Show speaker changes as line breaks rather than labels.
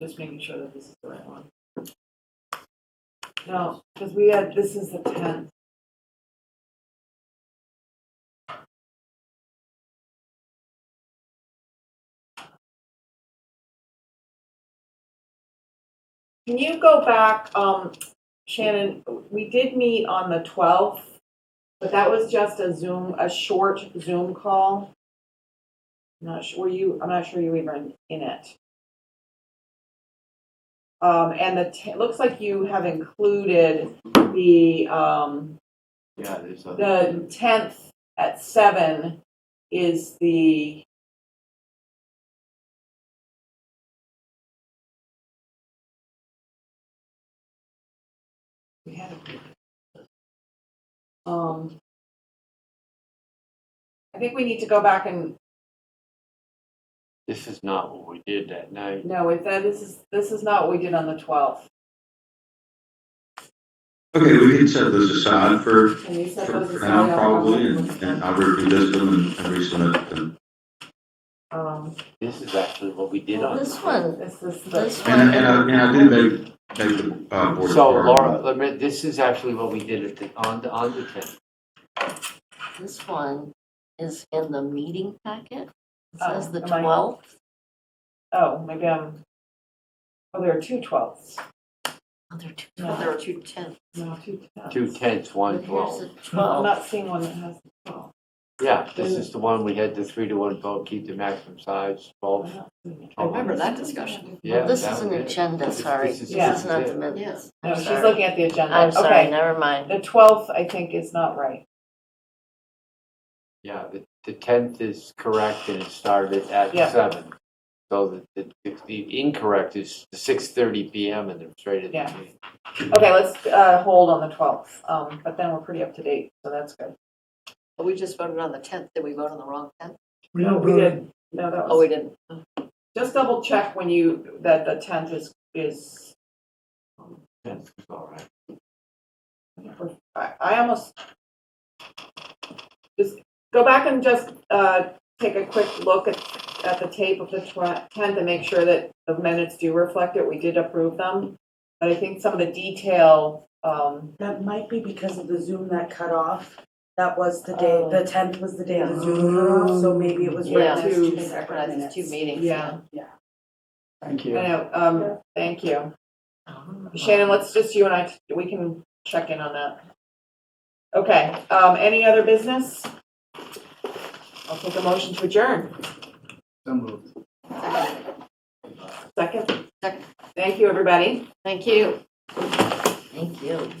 Just making sure that this is the right one. No, because we had, this is the tenth. Can you go back, um, Shannon, we did meet on the twelfth, but that was just a Zoom, a short Zoom call. I'm Not sure, were you, I'm not sure you were even in it. Um, and the, t- it looks like you have included the, um,
Yeah, there's a.
the tenth at seven is the. We had a- Um. I think we need to go back and,
This is not what we did that night.
no, if that, this is, this is not what we did on the twelfth.
Okay, we can set those aside for,
Can you set
for
those
for
aside?
now
I'll-
probably, and, and I'll revisit them and- and resubmit them.
Um.
This is actually what we did on.
This one,
This is
This
the,
one.
And, I- and I, and I did make, make the, uh, board.
So
aware of
Laura, let me- this is actually what we did at the, on the, on the tenth.
this one is in the meeting packet. It
Oh,
says the
am I-
12th.
oh, maybe I'm, oh, there are two twelfths.
Oh, there are two,
No.
there are two 10th.
No, two tenths.
Two tenths, one
But here's
twelve.
the
I'm
12th.
not seeing one that has the twelve.
Yeah, this is the one we had the three to one vote, keep the maximum size,
I'm
twelve.
not seeing it.
Oh, I remember
that discussion.
Yeah,
This
that
is an
was it.
agenda,
This-
sorry.
this
This
is-
Yeah.
is not the minutes.
Yes.
No,
I'm
she's
sorry.
looking at the agenda.
I'm sorry,
Okay.
never mind.
The twelfth, I think, is not right.
Yeah, the, the tenth is correct and it started at
Yeah.
seven. So the, the, the incorrect is six thirty P M and then straight at
Yeah.
the meeting.
Okay, let's, uh, hold on the twelfth, um, but then we're pretty up to date, so that's good.
But we just voted on the 10th. Did we vote on the wrong 10th?
We don't
We
vote,
did, no, that
Oh,
was,
we didn't.
just double check when you, that the tenth is, is,
Tenth is all right.
I, I almost. Just go back and just, uh, take a quick look at, at the tape of the tw- tenth and make sure that the minutes do reflect it, we did approve them. But I think some of the detail, um,
That might be because of the Zoom that cut off. That was the day,
Oh.
the tenth was the day the Zoom cut off, so maybe it was
Yeah,
right
there's
to
two
two separate
Recognize it's two
minutes.
meetings.
yeah,
thank
I
you.
know, um, thank you. Shannon, let's just, you and I, we can check in on that. Okay, um, any other business? I'll take a motion to adjourn. Second?
Second.
Thank you, everybody.
Thank you. Thank you.